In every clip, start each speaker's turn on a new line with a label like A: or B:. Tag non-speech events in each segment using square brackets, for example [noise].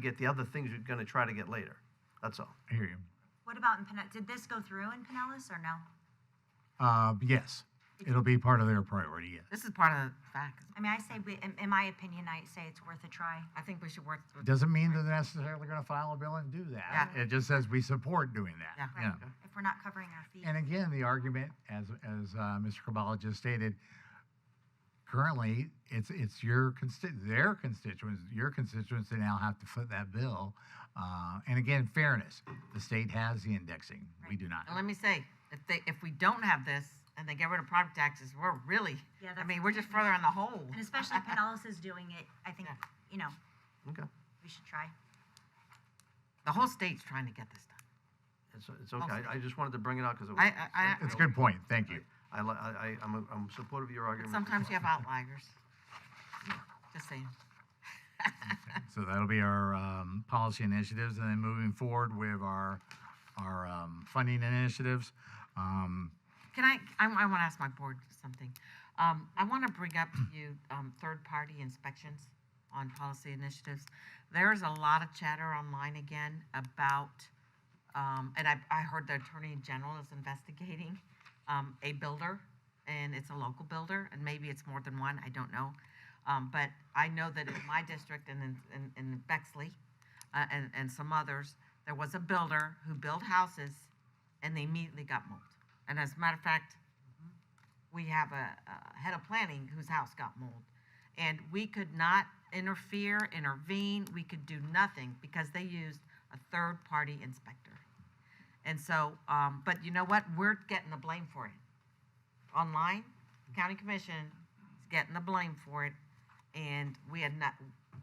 A: get the other things you're going to try to get later. That's all.
B: I hear you.
C: What about in Pinellas? Did this go through in Pinellas or no?
B: Uh, yes, it'll be part of their priority, yes.
D: This is part of the fact.
C: I mean, I say, we, in, in my opinion, I say it's worth a try.
D: I think we should work. with-
B: Doesn't mean they're necessarily gonna file a bill and do that.
D: Yeah.
B: It just says we support doing that.
D: Yeah.
B: Yeah.
C: If we're not covering our feet.
B: And again, the argument, as, as, uh, Mr. Kabbalah just stated, currently, it's, it's your consti- their constituents, your constituents that now have to foot that bill. Uh, and again, fairness, the state has the indexing, we do not.
D: And let me say, if they, if we don't have this and they get rid of product taxes, we're really,
C: Yeah,
D: I
C: that's-
D: mean, we're just further in the hole.
C: And
D: [laughs]
C: especially Pinellas is doing it, I think,
D: Yeah.
C: you know,
A: Okay.
C: we should try.
D: The whole state's trying to get this done.
A: It's, it's okay. I, I just wanted to bring it out because it was.
D: I, I,
B: It's a
D: I,
B: good point, thank you.
A: I, li- I, I, I'm, a, I'm supportive of your
D: but
A: argument.
D: sometimes you have outliers. Just saying.
B: So that'll be our um, policy initiatives, and then moving forward with our, our um, funding initiatives. Um,
D: Can I, I, want to ask my board something. Um, I want to bring up to you, um, third-party inspections on policy initiatives. There's a lot of chatter online again about, um, and I, I heard the Attorney General is investigating, um, a builder, and it's a local builder, and maybe it's more than one, I don't know. Um, but I know that in my district and in, in, in Bexley, uh, and, and some others, there was a builder who built houses and they immediately got moved. And as a matter of fact, we have a, a head of planning whose house got mold. And we could not interfere, intervene, we could do nothing because they used a third party inspector. And so, um, but you know what? We're getting the blame for it. Online, county commission is getting the blame for it and we had not,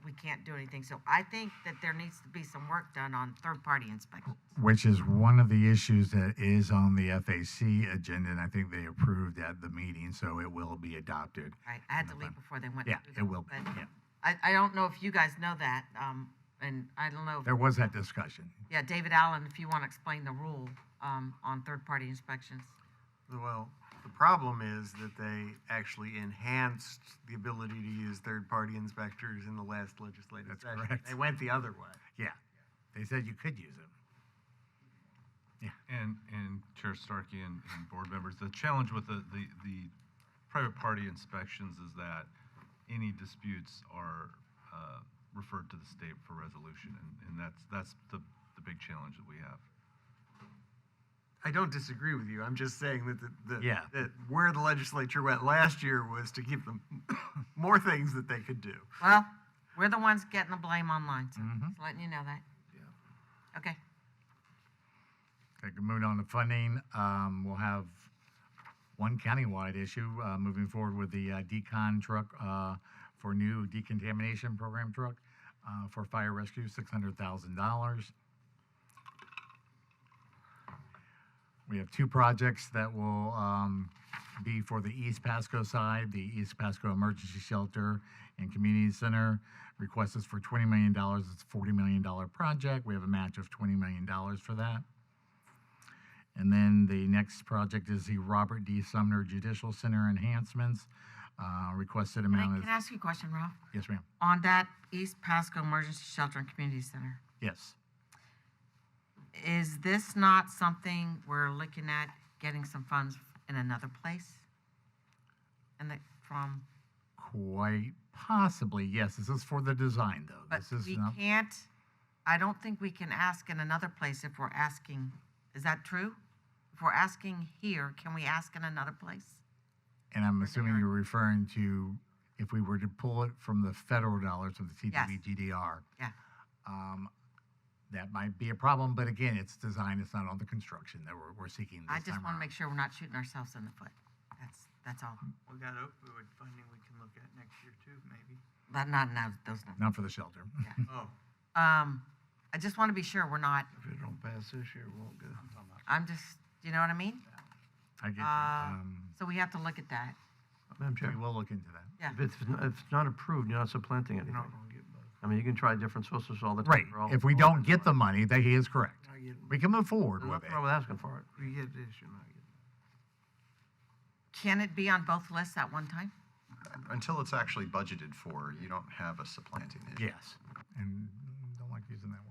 D: we can't do anything. So I think that there needs to be some work done on third party inspections.
B: Which is one of the issues that is on the FAC agenda, and I think they approved at the meeting, so it will be adopted.
D: Right, I had
B: in
D: to
B: the
D: leave
B: fund.
D: before they went.
B: Yeah,
D: through
B: it
D: that,
B: will be,
D: but
B: yeah.
D: I, I don't know if you guys know that, um, and I don't know,
B: There
D: if-
B: was that discussion.
D: yeah, David Allen, if you want to explain the rule, um, on third-party inspections.
E: Well, the problem is that they actually enhanced the ability to use third-party inspectors in the last legislative
B: That's
E: session.
B: correct.
E: They went the other way.
B: Yeah. They said you could use it.
F: And, and Chair Starkey and, and board members, the challenge with the, the, the private party inspections is that any disputes are, uh, referred to the state for resolution, and, and that's, that's the, the big challenge that we have.
E: I don't disagree with you. I'm just saying that the, the
B: Yeah.
E: that where the legislature went last year was to give them [coughs] more things that they could do.
D: Well, we're the ones getting the blame online, so just letting you know that. Okay,
B: Okay, good, moving on to funding, um, we'll have one countywide issue, uh, moving forward with the uh, decon truck, uh, for new decontamination program truck, uh, for fire rescue, six hundred thousand dollars. We have two projects that will um, be for the East Pasco side, the East Pasco Emergency Shelter and Community Center. Request is for $20 million. It's a $40 million project. We have a match of $20 million for that. And then the next project is the Robert D. Sumner Judicial Center enhancements. Uh, Requested
D: can I,
B: amount
D: can
B: is,
D: I ask you a question, Ralph?
B: yes, ma'am,
D: On that East Pasco Emergency Shelter and Community Center,
B: yes.
D: is this not something we're looking at getting some funds in another place? And that, from?
B: Quite possibly, yes. This is for the design, though.
D: But
B: This is
D: we
B: not,
D: can't, I don't think we can ask in another place if we're asking, is that true? If we're asking here, can we ask in another place?
B: and I'm assuming you're referring to if we were to pull it from the federal dollars of the
D: Yes.
B: TDBGDR.
D: Yeah,
B: um, That might be a problem, but again, it's design, it's not on the construction that we're, we're seeking
D: I
B: this
D: just
B: time
D: want to
B: around.
D: make sure we're not shooting ourselves in the foot. That's, that's all.
B: Mm.
G: We got opioid funding we can look at next year too, maybe.
D: But not now, those numbers.
B: Not for the shelter.
G: Oh.
D: Um, I just want to be sure we're not,
A: If it don't pass this year, it won't go.
D: I'm just, you know what I mean?
B: [laughs] I get you.
D: Uh,
B: Um,
D: So we have to look at that.
A: Madam Chair,
B: We will look into that.
D: Yeah.
A: if it's, not- if it's not approved, you're not supplanting anything. I mean, you can try different sources all the time.
B: Right,
A: They're all-
B: if we
A: all
B: don't
A: kinds of
B: get the money, that he is correct.
G: I get,
B: We can move forward
A: money.
B: with
A: Nothing
B: it.
A: wrong with asking for it.
G: you get this, you're not getting.
D: Can it be on both lists at one time?
H: Until it's actually budgeted for, you don't have a supplanting issue.
B: Yes, and